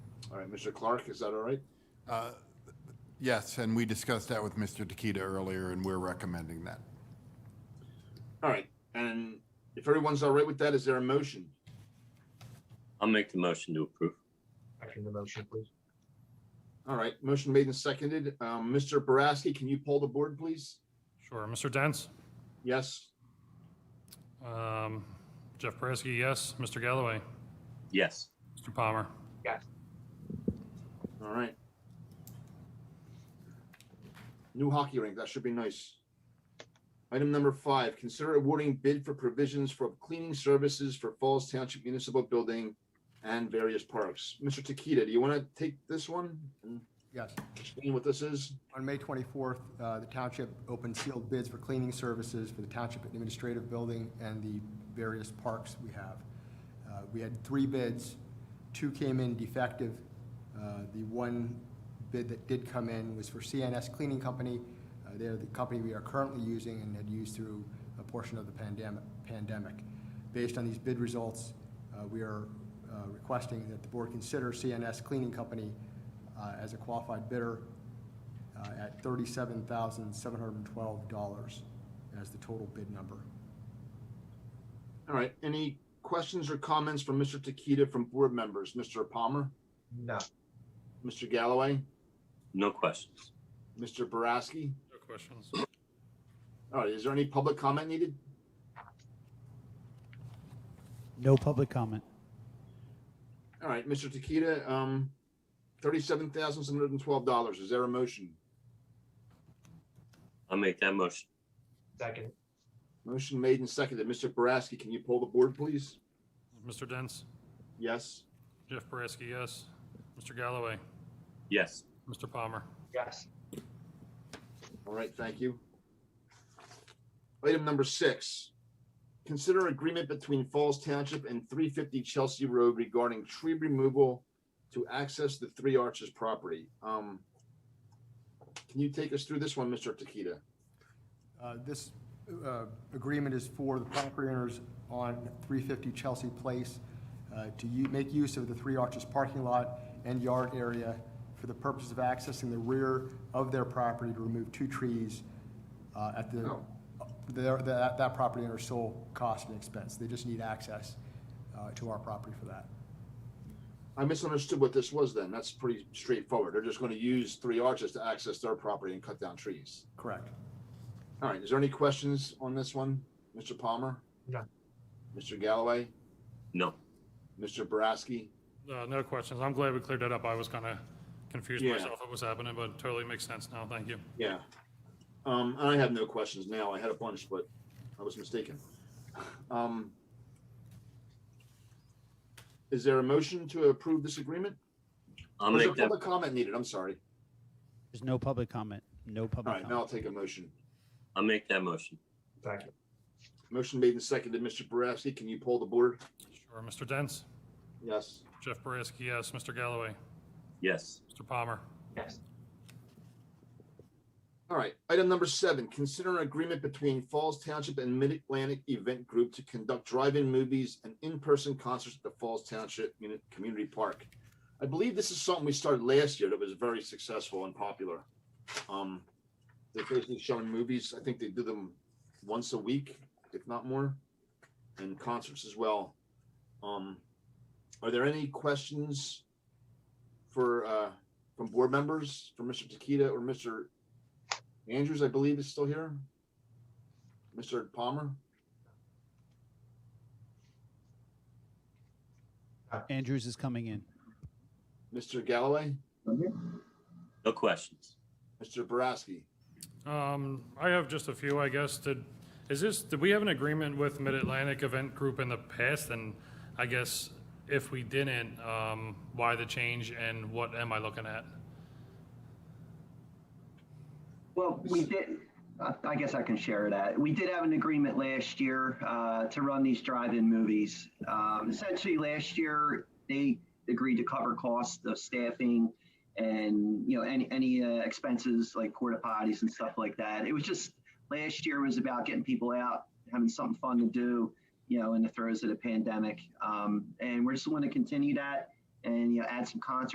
All right, Mr. Clark, is that all right? Uh, Yes, and we discussed that with Mr. Takita earlier, and we're recommending that. All right, and if everyone's all right with that, is there a motion? I'll make the motion to approve. Second the motion, please. All right, motion made and seconded. Um, Mr. Boraski, can you poll the board, please? Sure. Mr. Dents? Yes, Um, Jeff Perezki, yes. Mr. Galloway? Yes. Mr. Palmer? Yes. all right. New hockey rink, that should be nice. Item number five, consider awarding bid for provisions for cleaning services for Falls Township Municipal Building and various parks. Mr. Takita, do you want to take this one and Yes. explain what this is? On May 24th, uh, the township opened sealed bids for cleaning services for the township administrative building and the various parks we have. Uh, We had three bids. Two came in defective. Uh, The one bid that did come in was for CNS Cleaning Company. Uh, They're the company we are currently using and had used through a portion of the pandem- pandemic. Based on these bid results, uh, we are uh, requesting that the board consider CNS Cleaning Company uh, as a qualified bidder uh, at thirty-seven thousand, seven hundred and twelve dollars as the total bid number. All right, any questions or comments from Mr. Takita from board members? Mr. Palmer, No, Mr. Galloway, No questions. Mr. Boraski? No questions. All right, is there any public comment needed? No public comment. All right, Mr. Takita, um, thirty-seven thousand seven hundred and twelve dollars. Is there a motion? I'll make that motion. second, Motion made and seconded. Mr. Boraski, can you pull the board, please? Mr. Dents? Yes. Jeff Perezki, yes. Mr. Galloway? Yes. Mr. Palmer? yes, All right, thank you. Item number six. Consider agreement between Falls Township and three fifty Chelsea Road regarding tree removal to access the Three Arches property. Um, can you take us through this one, Mr. Takita? Uh, This uh, agreement is for the property owners on 350 Chelsea Place uh, to u- make use of the Three Arches parking lot and yard area for the purpose of accessing the rear of their property to remove two trees uh, at the, No. their- that that property owner's sole cost and expense. They just need access uh, to our property for that. I misunderstood what this was then. That's pretty straightforward. They're just going to use three arches to access their property and cut down trees. Correct. All right, is there any questions on this one? Mr. Palmer? None. Mr. Galloway? No. Mr. Boraski? Uh, no questions. I'm glad we cleared that up. I was kind of confused Yeah. myself what was happening, but totally makes sense now. Thank you. Yeah. Um, I have no questions now. I had a bunch, but I was mistaken. Um, is there a motion to approve this agreement? I'll There's a make that, public comment needed. I'm sorry. There's no public comment. No All public right, now I'll take comment. a motion. I'll make that motion. second, Motion made and seconded. Mr. Boraski, can you pull the board? Sure. Mr. Dents? Yes. Jeff Perezki, yes. Mr. Galloway? Yes. Mr. Palmer? yes, All right, item number seven, consider an agreement between Falls Township and Mid-Atlantic Event Group to conduct drive-in movies and in-person concerts at the Falls Township Muni- Community Park. I believe this is something we started last year that was very successful and popular. Um, they're basically showing movies. I think they do them once a week, if not more, and concerts as well. Um, are there any questions for, uh, from board members, from Mr. Takita or Mr. Andrews, I believe, is still here. Mr. Palmer, Andrews is coming in. Mr. Galloway, No questions. Mr. Boraski. Um, I have just a few, I guess. Did, is this, did we have an agreement with Mid-Atlantic Event Group in the past? And I guess if we didn't, um, why the change and what am I looking at? Well, we did, I- I guess I can share that. We did have an agreement last year uh, to run these drive-in movies. Um, Essentially, last year, they agreed to cover costs of staffing and, you know, any, any uh, expenses like porta potties and stuff like that. It was just, last year was about getting people out, having something fun to do, you know, in the throes of the pandemic. Um, And we're just going to continue that and, you know, add some concerts